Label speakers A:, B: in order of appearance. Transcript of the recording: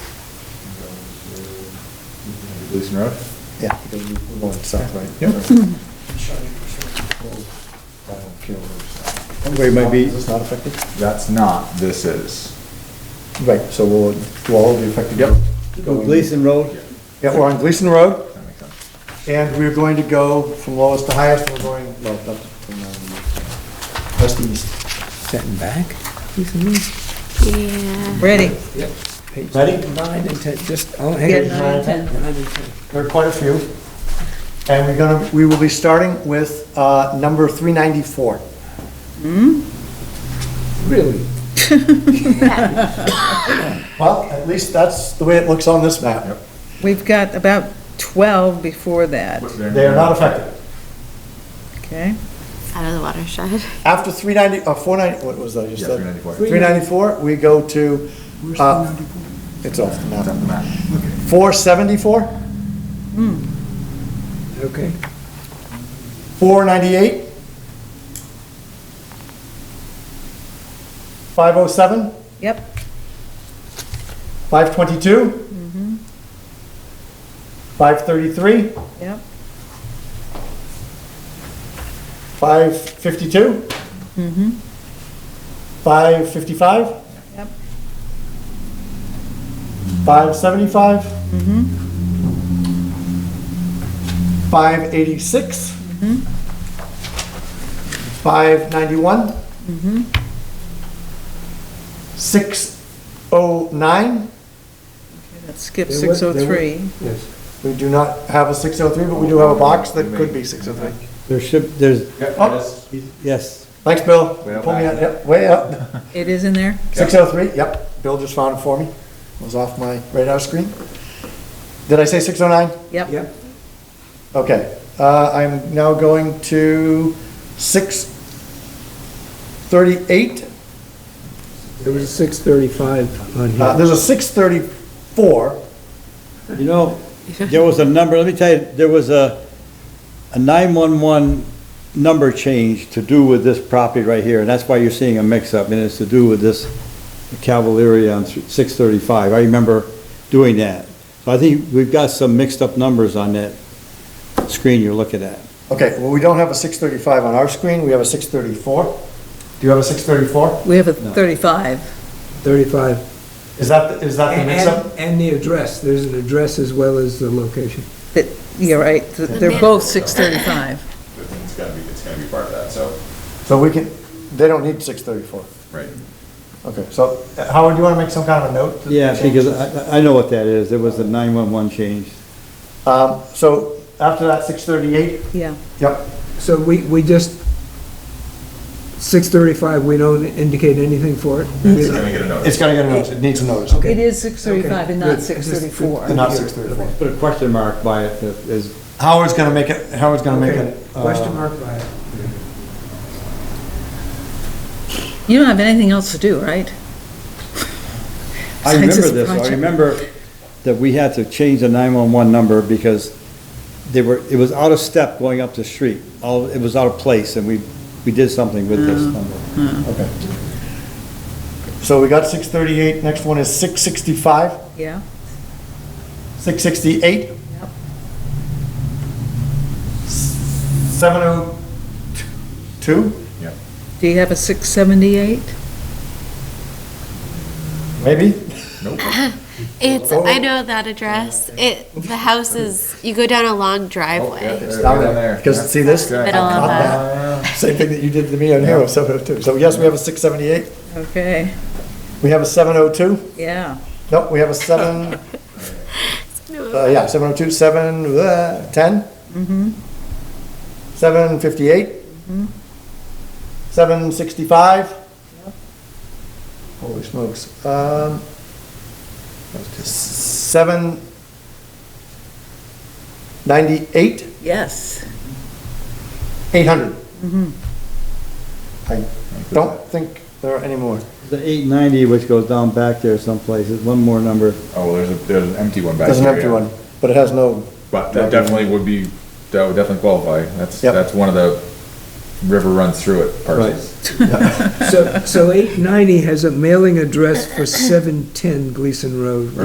A: Gleason Road?
B: Yeah, because we- we're going south, right?
A: Yeah.
B: Where it might be,
A: Is this not affected? That's not, this is.
B: right, so we'll, we'll all be affected.
A: Yep.
B: Going-
C: Gleason Road?
B: Yeah, we're on Gleason Road,
A: That makes sense.
B: and we're going to go from lowest to highest, we're going, well, not from, um, west to east.
C: Setting back?
D: Yeah.
E: Ready?
C: Page
B: Ready?
C: Nine and ten, just, oh,
E: Yeah,
C: hang
E: nine
C: on.
E: and ten.
C: Nine and ten.
B: There are quite a few. And we're gonna, we will be starting with, uh, number three ninety-four.
C: Really?
B: Well, at least that's the way it looks on this map.
A: Yep.
E: We've got about 12 before that,
B: They are not affected.
E: okay?
D: Out of the watershed.
B: After three ninety, uh, four ninety, what was that you
A: Yeah,
B: said?
A: 394.
B: Three ninety-four, we go to, uh, it's off the
A: It's
B: map.
A: on the map.
B: Four seventy-four,
C: Okay.
B: four ninety-eight, five oh seven,
E: Yep,
B: five twenty-two, five thirty-three,
E: yep,
B: five fifty-two, five fifty-five,
E: yep,
B: Five seventy-five? Five eighty-six? Five ninety-one? Six oh nine?
E: let's skip
B: There was- there was-
E: 603.
C: Yes.
B: We do not have a six oh three, but we do have a box that
A: We may-
B: could be six oh three.
C: There should, there's,
A: Yep,
B: Oh.
A: yes.
C: yes.
B: Thanks, Bill.
A: Way up
B: Pull me
A: back.
B: out, yep, way up.
E: It is in there?
B: Six oh three, yep. Bill just found it for me. It was off my radar screen. Did I say six oh nine?
E: Yep,
B: Okay, uh, I'm now going to six thirty-eight. Uh,
C: There was a six thirty-five on
B: Uh,
C: here.
B: there's a six thirty-four.
F: You know, there was a number, let me tell you, there was a, a 911 number change to do with this property right here, and that's why you're seeing a mix-up, and it's to do with this Cavalieri on 635. I remember doing that. So I think we've got some mixed-up numbers on that screen you're looking at.
B: Okay, well, we don't have a six thirty-five on our screen, we have a six thirty-four. Do you have a six thirty-four?
E: we have a 35.
C: Thirty-five.
B: Is that, the- is that Uh, the
C: And,
B: mix-up?
C: and- and the address, there's an address as well as the location.
E: That- You're right, th- they're both 635.
G: it's gotta be, it's gonna be part of that, so,
B: So we can, they don't need six thirty-four.
G: right.
B: Okay, so uh, Howard, do you want to make some kind of a note? to
F: Yeah,
B: change
F: because
B: this?
F: I, I- I know what that is. It was the 911 change.
B: Um, so after that, six thirty-eight,
E: Yeah,
B: yep,
C: So we, we just, six thirty-five, we don't indicate anything for it?
G: It's gonna get a
B: it's
G: notice.
B: gonna get a notice, it needs a notice,
E: it is 635 and
C: Okay,
E: not
C: good.
E: 634.
B: and not six thirty-four.
F: Put a question mark by it, that is,
B: Howard's gonna make it, Howard's gonna make
C: Okay,
B: it. uh,
C: question mark by it.
E: You don't have anything else to do, right? Besides
F: I remember this, I
E: project.
F: remember that we had to change the 911 number because they were, it was out of step going up the street. All, it was out of place, and we, we did something with this number.
B: Okay. So we got six thirty-eight, next one is six sixty-five,
E: Yeah,
B: six sixty-eight.
E: Yep.
B: Seven oh two,
E: do you have a 678?
B: maybe?
D: It's, I know that address. It, the house is, you go down a long driveway.
A: Oh, It's down there.
B: Because, see this?
A: Yeah.
D: Middle of a,
B: Same thing that you did to me on here, with seven oh two. So yes, we have a six seventy-eight,
E: Okay,
B: we have a seven oh two,
E: yeah.
B: nope, we have a seven, uh, yeah, seven oh two, seven, uh, ten. Seven fifty-eight. Seven sixty-five. Holy smokes, um, seven ninety-eight,
E: Yes.
B: eight hundred. I don't think there are any more.
F: The 890, which goes down back there someplace, is one more number.
A: Oh, well, there's a, there's an empty one back
B: There's an
A: there,
B: empty
A: yeah.
B: one, but it has no,
A: But that definitely would be, that would definitely qualify. That's,
B: Yep.
A: that's one of the river runs through it parcels.
C: So, so eight ninety has a mailing address for seven ten Gleason Road.